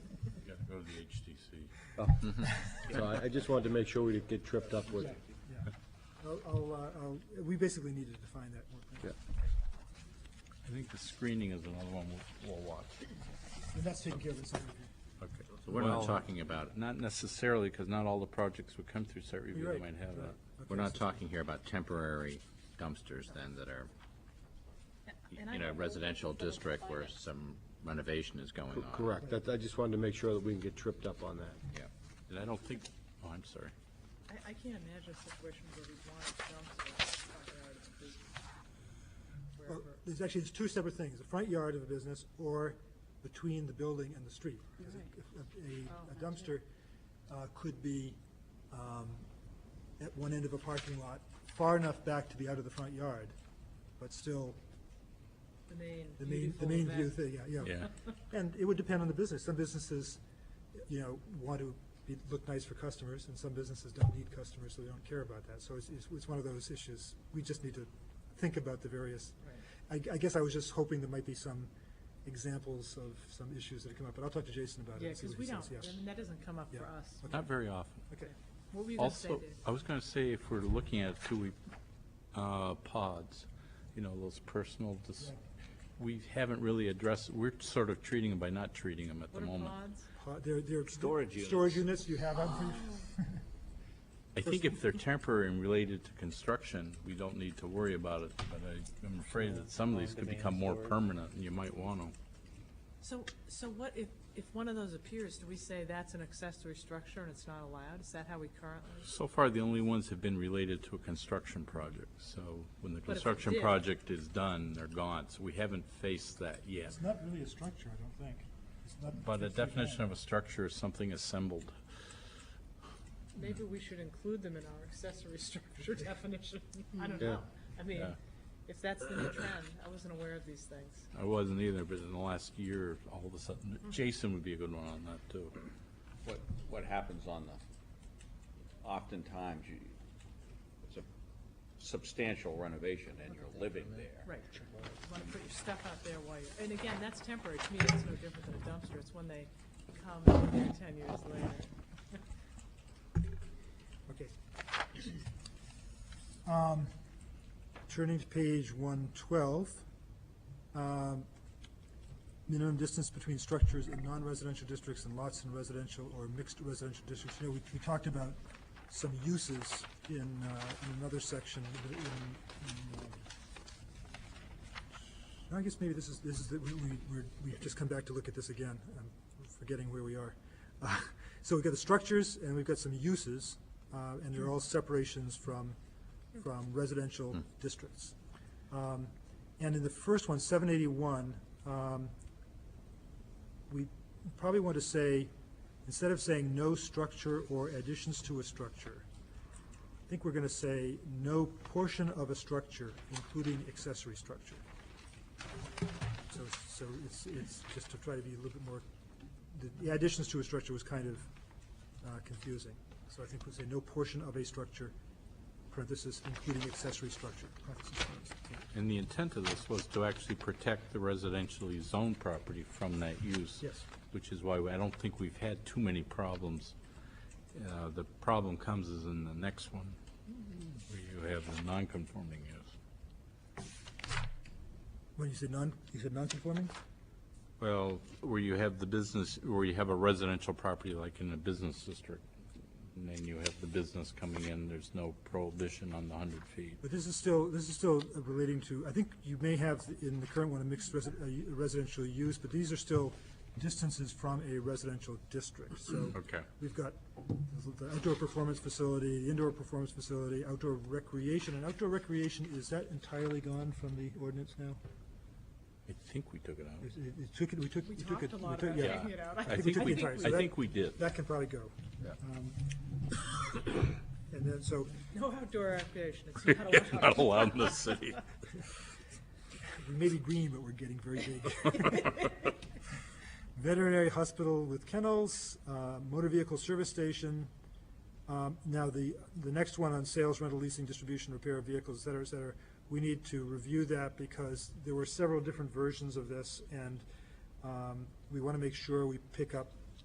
see. So I, I just wanted to make sure we didn't get tripped up with, Yeah. I'll, I'll, uh, I'll, we basically need to define that more. clearly. I think the screening is another one we'll, we'll watch. And that's taken care of in site review. Okay. So we're not Well- talking about it, not necessarily, because not all the projects would come through site review, You're they right, might have right. that. Okay, We're not so- talking here about temporary dumpsters then that are And I in a don't know residential what people district define where it. some renovation is going on. correct, that, I just wanted to make sure that we didn't get tripped up on that. Yeah. And I don't think, oh, I'm sorry. I, I can't imagine a situation where we want dumps or front yard of a business. Well, Wherever, There's actually, there's two separate things, the front yard of a business or between the building and the street. 'Cause a- Oh, A a that's dumpster uh, could be um, at one end of a parking lot, far enough back to be out of the front yard, but still the main. the main, the beautiful main view event. thing, yeah, yeah. Yeah. And it would depend on the business. Some businesses, you know, want to be, look nice for customers, and some businesses don't need customers, so they don't care about that. So it's, it's, it's one of those issues. We just need to think about the various. I, I guess I was just hoping there might be some examples of some issues that have come up, but I'll talk to Jason about it Yeah, and see because what we he don't, says, I mean, that doesn't come up Yeah. for us. Not very often. Okay, What were you gonna say, Also, uh, Dave? I was going to say, if we're looking at two-week uh, pods, you know, those personal, dis- we haven't really addressed, we're sort of treating them by not treating them at the What are moment. pods? Uh, there, there. Storage units. Storage units you have, on am Oh. I think if they're temporary and related to construction, we don't need to worry about it, but I- I'm afraid that some of these could become more permanent, and you might want them. So, so what if, if one of those appears, do we say that's an accessory structure and it's not allowed? Is that how we currently? So far, the only ones have been related to a construction project, so when the if it construction did- project is done, they're gone, so we haven't faced that yet. not really a structure, I don't think. It's not But a strictly definition of a structure is something assembled. Maybe we should include them in our accessory structure definition. I don't Yeah. know. I mean, Yeah. if that's the new trend, I wasn't aware of these things. I wasn't either, but in the last year, all of a sudden, Mm-hmm. Jason would be a good one on that, too. What, what happens on the, oftentimes, you, it's a substantial renovation and you're living there. Right. You want to put your stuff out there while you're, and again, that's temporary. To me, that's no different than a dumpster. It's when they come and they're ten years later. Okay. Um, Turning to page one twelve, um, minimum distance between structures in non-residential districts and lots in residential or mixed residential districts. You know, we, we talked about some uses in, uh, in another section, in, in, um, no, I guess maybe this is, this is, the- we, we, we're- we've just come back to look at this again. I'm forgetting where we are. Uh, So we've got the structures and we've got some uses, uh, and they're all separations from, from residential districts. Um, And in the first one, seven eighty-one, um, we probably want to say, instead of saying no structure or additions to a structure, I think we're gonna say no portion of a structure, including accessory structure. So, so it's, it's just to try to be a little bit more, the- the additions to a structure was kind of uh, confusing. So I think we'll say no portion of a structure, parenthesis, including accessory structure, parenthesis closed. And the intent of this was to actually protect the residentially zoned property from that use. Yes. Which is why I don't think we've had too many problems. Uh, The problem comes is in the next one, where you have the non-conforming use. When you said non, you said non-conforming? Well, where you have the business, where you have a residential property like in a business district, and then you have the business coming in, there's no prohibition on the 100 feet. But this is still, this is still relating to, I think you may have in the current one a mixed resi- a residential use, but these are still distances from a residential district, so. Okay. We've got the outdoor performance facility, the indoor performance facility, outdoor recreation, and outdoor recreation, is that entirely gone from the ordinance now? I think we took it out. It, it- it took, it- we took, we We took it. talked a lot we took- about yeah. taking it out. I we think took we, the entire- I think we did. That can probably go. Um, And then, so, No outdoor recreation. It's not allowed. Not allowed in the city. we may be green, but we're getting very big. Veterinary hospital with kennels, uh, motor vehicle service station. Um, Now, the, the next one on sales, rental, leasing, distribution, repair of vehicles, et cetera, et cetera, we need to review that because there were several different versions of this, and um, we want to make sure we pick up